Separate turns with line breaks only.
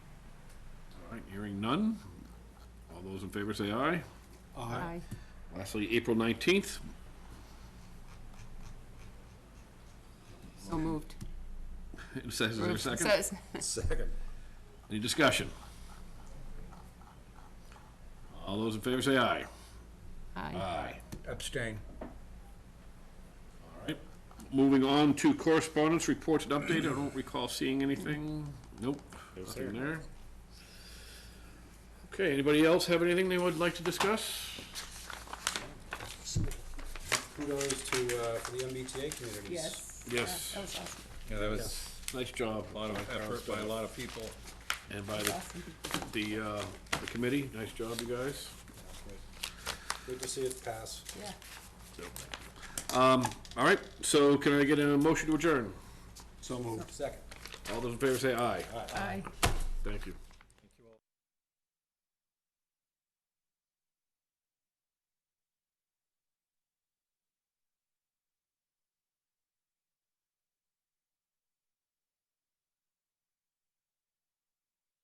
right, hearing none. All those in favor say aye.
Aye.
Lastly, April 19th,
So moved.
it says, is there a second?
Says-
Second.
Any discussion? All those in favor say aye. Uh,
Aye.
Aye.
Abstain.
All right, moving on to correspondence, reports and update, I don't recall seeing anything. Nope, nothing there. Okay, anybody else have anything they would like to discuss?
Kudos to, uh, for the MBTA communities.
Yes.
Yes.
That was awesome.
Yeah, that was
Nice job.
a lot of effort by a lot of people.
And by the, the, uh, the committee, nice job, you guys.
Good to see it pass.
Yeah.
All right, so can I get a motion to adjourn?
So moved. Second.
All those in favor say aye.
Aye.
Thank you.